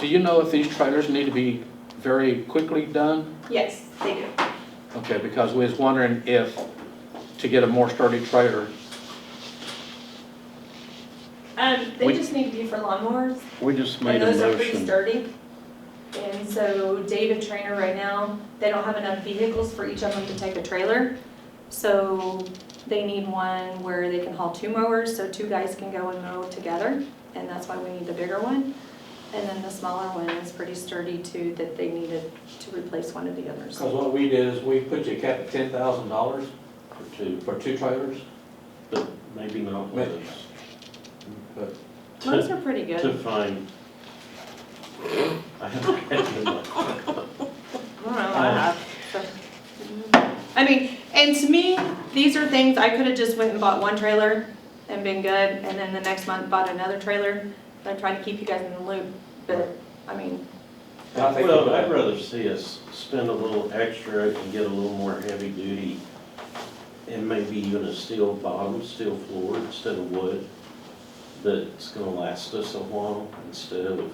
Do you know if these trailers need to be very quickly done? Yes, they do. Okay, because we was wondering if, to get a more sturdy trailer, Um, We- they just need to be for lawnmowers, We just and made a those are pretty motion. sturdy. And so David Trainer right now, they don't have enough vehicles for each of them to take a trailer. So they need one where they can haul two mowers, so two guys can go and mow together, and that's why we need the bigger one. And then the smaller one is pretty sturdy too, that they needed to replace one of the others. Because what we did is we put you a cap at ten thousand dollars for two, for two trailers, but maybe not with us. but Those To, are pretty to good. find. I have, I don't know, I have, so. I mean, and to me, these are things, I could have just went and bought one trailer and been good, and then the next month bought another trailer. I'm trying to keep you guys in the loop, but, I mean, I think. well, I'd rather see us spend a little extra and get a little more heavy duty and maybe even a steel bottom, steel floor instead of wood. That's gonna last us a while instead of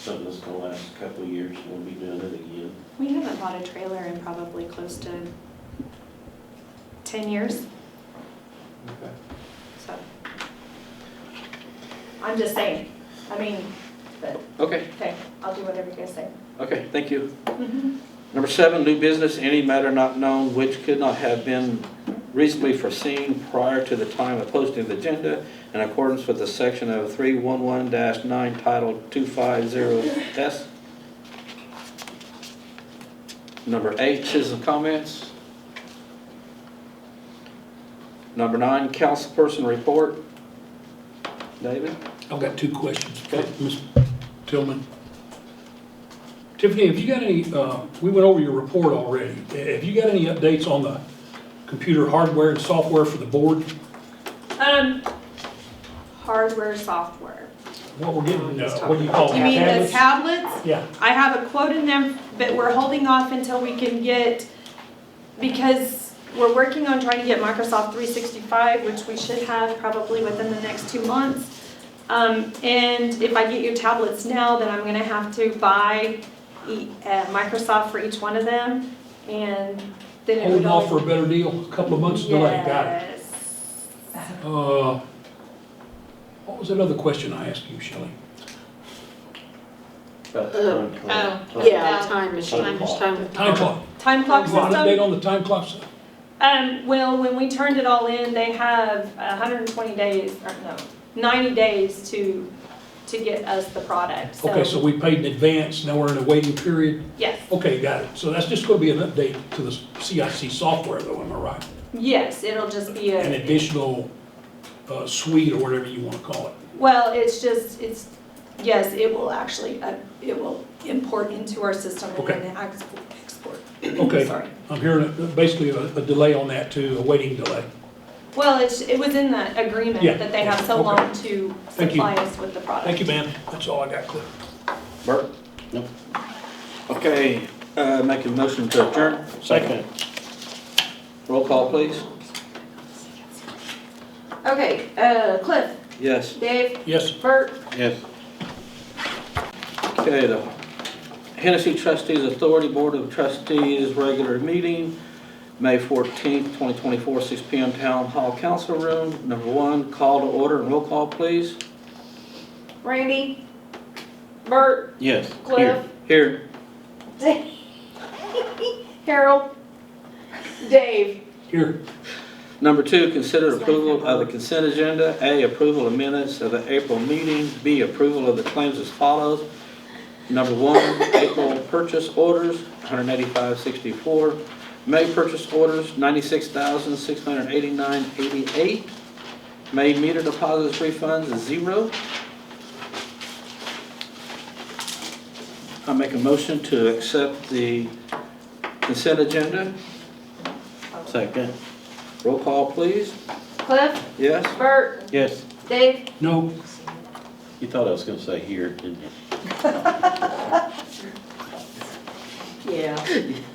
something that's gonna last a couple of years and we'll be doing it again. we haven't bought a trailer in probably close to ten years, Okay. so. I'm just saying, I mean, but, okay, okay, I'll do whatever you guys say. okay, thank you. Number seven, new business, any matter not known which could not have been reasonably foreseen prior to the time of posting of the agenda in accordance with the section of 311-9 Title 250S. Number eight, citizen comments. Number nine, councilperson report. David? I've got two questions for Okay. Ms. Tillman. Tiffany, have you got any, uh, we went over your report already. Have you got any updates on the computer hardware and software for the board? Um, hardware, software. What we're getting, uh, what do you call You mean the tablets? tablets? Yeah, I have a quote in there, but we're holding off until we can get, because we're working on trying to get Microsoft three sixty-five, which we should have probably within the next two months. Um, and if I get your tablets now, then I'm gonna have to buy e- uh, Microsoft for each one of them, and then it would holding off for only. a better deal, a couple of months delay, got it. Yes. Uh, What was that other question I asked you, Shelley? But Oh, Yeah, uh, time machine, Time clock. time. Time clock. Time clock You system. got an update on the time clock? system? Um, well, when we turned it all in, they have hundred and twenty days, or no, ninety days to, to get us the product, so. Okay, so we paid in advance, now we're in a waiting period. Yes, Okay, got it. So that's just gonna be an update to the CIC software though, am I right? yes, it'll just be An a, additional uh, suite or whatever you wanna call it. well, it's just, it's, yes, it will actually, uh, it will import into our system and Okay. then export, export. Okay, Sorry. I'm hearing a- basically a a delay on that too, a waiting delay. Well, it's, it was in the agreement Yeah, that they have so okay. long to Thank you. supply us with the product. Thank you, ma'am. That's all I got, Cliff. Bert? Nope. Okay, uh, make a motion to adjourn. Second. Roll call, please. Okay, uh, Cliff, Yes. Dave, Yes, Bert, Yes. Okay, the Hennessy Trustees Authority Board of Trustees Regular Meeting, May 14th, 2024, 6 PM, Town Hall Council Room. Number one, call to order and roll call, please. Randy, Bert, Yes. Cliff, Here. Harold, Dave. here. Number two, consider approval of the consent agenda. A, approval of minutes of the April meeting. B, approval of the claims as follows. Number one, April purchase orders, 185.64. May purchase orders, 96,689.88. May meter deposits refunds is zero. I make a motion to accept the consent agenda. Second. Roll call, please. Cliff, Yes? Bert, Yes. Dave, No, You thought I was gonna say here, didn't you? yeah.